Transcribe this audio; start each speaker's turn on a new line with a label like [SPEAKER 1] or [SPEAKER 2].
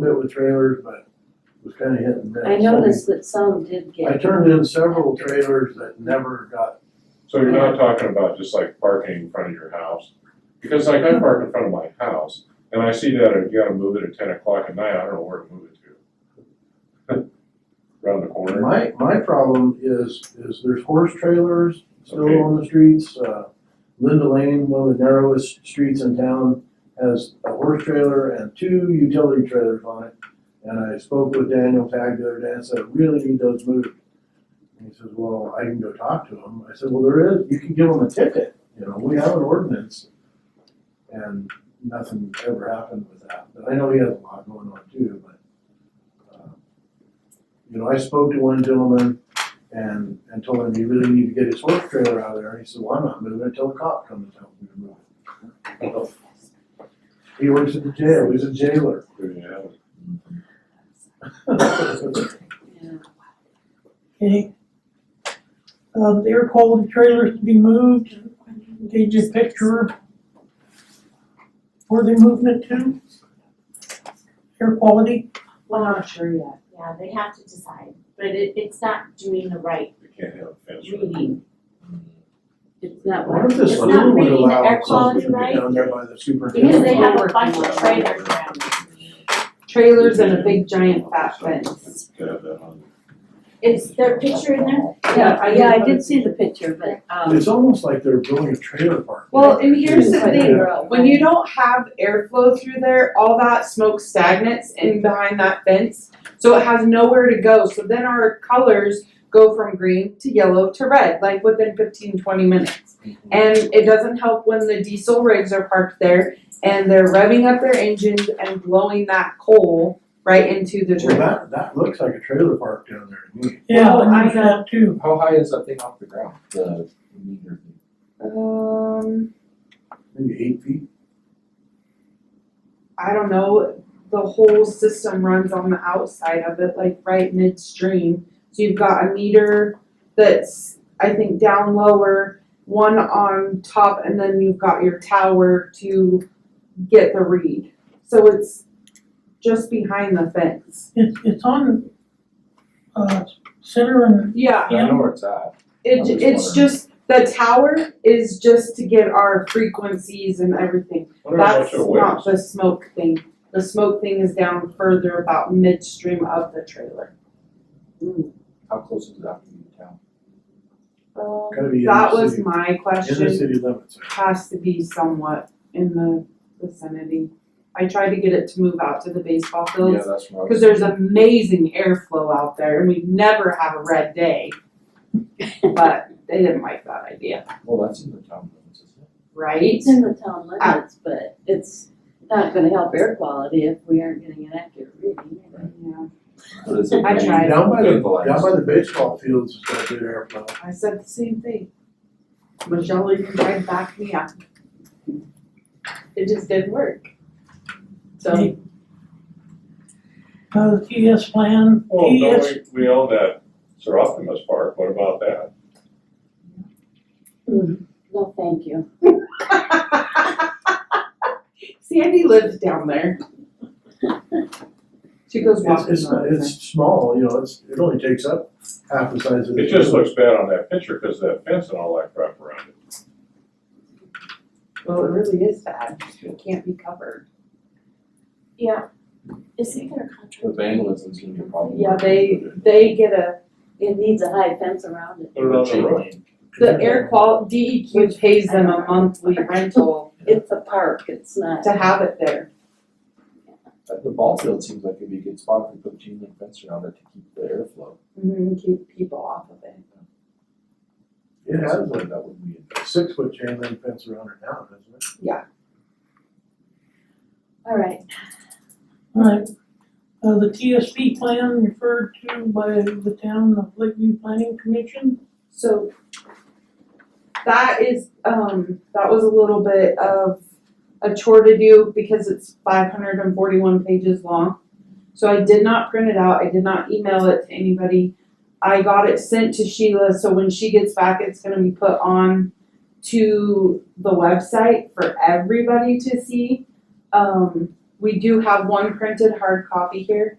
[SPEAKER 1] bit with trailers, but it was kinda hit and miss.
[SPEAKER 2] I noticed that some did
[SPEAKER 1] So, I
[SPEAKER 2] get,
[SPEAKER 1] turned in several trailers that never got,
[SPEAKER 3] So you're not talking about just like parking in front of your house? Because like I park in front of my house and I see that if you gotta move it at ten o'clock at night, I don't know where to move it to. Around the corner,
[SPEAKER 1] my, my problem is, is there's horse trailers
[SPEAKER 3] Okay.
[SPEAKER 1] still on the streets, uh, Linda Lane, one of the narrowest streets in town, has a horse trailer and two utility trailers on it. And I spoke with Daniel Tag the other day and said, really need those moved. And he says, well, I can go talk to them. I said, well, there is, you can give them a ticket, you know, we have an ordinance. And nothing ever happened with that, but I know he has a lot going on too, but. uh, You know, I spoke to one gentleman and, and told him he really needed to get his horse trailer out of there, and he said, well, I'm not moving it until the cop comes and tells me to move it. So, He works at the jail, he's a jailer.
[SPEAKER 3] through the alley.
[SPEAKER 2] yeah.
[SPEAKER 4] Okay. Um, the air quality trailers to be moved, gauge your picture. Were they movement to? Air quality,
[SPEAKER 5] Well, I'm not sure yet, yeah, they have to decide, but it, it's not doing the right
[SPEAKER 3] You can't have a fence. around it.
[SPEAKER 5] reading.
[SPEAKER 2] It's not
[SPEAKER 1] What
[SPEAKER 2] one.
[SPEAKER 1] if this
[SPEAKER 5] It's not
[SPEAKER 1] one would
[SPEAKER 5] reading the
[SPEAKER 1] allow
[SPEAKER 5] air
[SPEAKER 1] something to be
[SPEAKER 5] quality
[SPEAKER 1] down there by the superintendent?
[SPEAKER 5] Because they have a bunch of trailers around.
[SPEAKER 6] trailers and a big giant fat fence.
[SPEAKER 3] To have that on.
[SPEAKER 5] Is there a picture in there?
[SPEAKER 2] Yeah, I- yeah, I did see the picture, but, um,
[SPEAKER 1] It's almost like they're building a trailer park.
[SPEAKER 6] Well, and here's the
[SPEAKER 2] but
[SPEAKER 6] thing,
[SPEAKER 2] they're all-
[SPEAKER 6] when you don't have airflow through there, all that smoke stagnates in behind that fence. So it has nowhere to go, so then our colors go from green to yellow to red, like within 15, 20 minutes. And it doesn't help when the diesel rigs are parked there and they're revving up their engines and blowing that coal right into the
[SPEAKER 1] Well,
[SPEAKER 6] tree.
[SPEAKER 1] that, that looks like a trailer park down there to me.
[SPEAKER 4] yeah,
[SPEAKER 6] Well, I
[SPEAKER 4] I moved that too.
[SPEAKER 7] How high is that thing off the ground, the meter thing?
[SPEAKER 6] Um.
[SPEAKER 1] maybe eight feet.
[SPEAKER 6] I don't know, the whole system runs on the outside of it, like right midstream. So you've got a meter that's, I think, down lower, one on top, and then you've got your tower to get the read. So it's just behind the fence.
[SPEAKER 4] It's, it's on, uh, center and,
[SPEAKER 6] Yeah,
[SPEAKER 7] I don't know where it's at. I
[SPEAKER 6] it,
[SPEAKER 7] was
[SPEAKER 6] it's
[SPEAKER 7] wondering.
[SPEAKER 6] just, the tower is just to get our frequencies and everything.
[SPEAKER 3] Wonder how much
[SPEAKER 6] That's
[SPEAKER 3] it weighs.
[SPEAKER 6] not the smoke thing. The smoke thing is down further about midstream of the trailer.
[SPEAKER 7] How close is that from the town?
[SPEAKER 1] Gotta be in
[SPEAKER 6] That
[SPEAKER 1] the
[SPEAKER 6] was
[SPEAKER 1] city,
[SPEAKER 6] my
[SPEAKER 1] in the
[SPEAKER 6] question.
[SPEAKER 1] city limits.
[SPEAKER 6] Has to be somewhat in the vicinity. I tried to get it to move out to the baseball
[SPEAKER 7] Yeah,
[SPEAKER 6] fields,
[SPEAKER 7] that's where I was.
[SPEAKER 6] cause there's amazing airflow out there and we never have a red day. But they didn't like that idea,
[SPEAKER 7] Well, that's in the town limits, isn't it?
[SPEAKER 6] right?
[SPEAKER 2] It's in the town limits, but it's not gonna help air quality if we aren't getting an accurate reading.
[SPEAKER 6] Yeah,
[SPEAKER 7] But it's a
[SPEAKER 6] I
[SPEAKER 7] green-
[SPEAKER 6] tried.
[SPEAKER 1] Down by the,
[SPEAKER 7] Good lines.
[SPEAKER 1] down by the baseball fields is got good airflow.
[SPEAKER 6] I said the same thing. Michelle even tried to back me up. It just didn't work. So.
[SPEAKER 4] uh, the TS plan,
[SPEAKER 3] Well, no,
[SPEAKER 4] TS,
[SPEAKER 3] we, we own that Sir Optimus Park, what about that?
[SPEAKER 5] Mm-hmm.
[SPEAKER 2] No, thank you.
[SPEAKER 6] Sandy lives down there. She goes
[SPEAKER 1] It's,
[SPEAKER 6] walking.
[SPEAKER 1] it's,
[SPEAKER 6] all
[SPEAKER 1] not-
[SPEAKER 6] the time.
[SPEAKER 1] it's small, you know, it's, it only takes up half the size of the.
[SPEAKER 3] It just looks bad on that picture because that fence and all that crap around it.
[SPEAKER 6] Well, it really is bad. It can't be covered.
[SPEAKER 5] Yeah. Is it gonna contract?
[SPEAKER 7] The vandalism is gonna be a problem.
[SPEAKER 6] Yeah, they, they get a,
[SPEAKER 2] It needs a high fence around it.
[SPEAKER 3] Put it on the road.
[SPEAKER 6] the air qual, DEQ pays them a monthly rental
[SPEAKER 2] It's a park, it's not.
[SPEAKER 6] to have it there.
[SPEAKER 7] But the ball field seems like it'd be a good spot to put chain link fence around it to keep the airflow.
[SPEAKER 6] Mhm, keep people off of it.
[SPEAKER 1] It has
[SPEAKER 7] Something That would be.
[SPEAKER 1] a six foot chain link fence around it now, doesn't it?
[SPEAKER 2] All right,
[SPEAKER 4] alright. Uh, the TSP plan referred to by the town of Lakeview Planning Commission,
[SPEAKER 6] So that is, um, that was a little bit of a chore to do because it's five hundred and forty-one pages long. So I did not print it out, I did not email it to anybody. I got it sent to Sheila, so when she gets back, it's gonna be put on to the website for everybody to see. Um, We do have one printed hard copy here.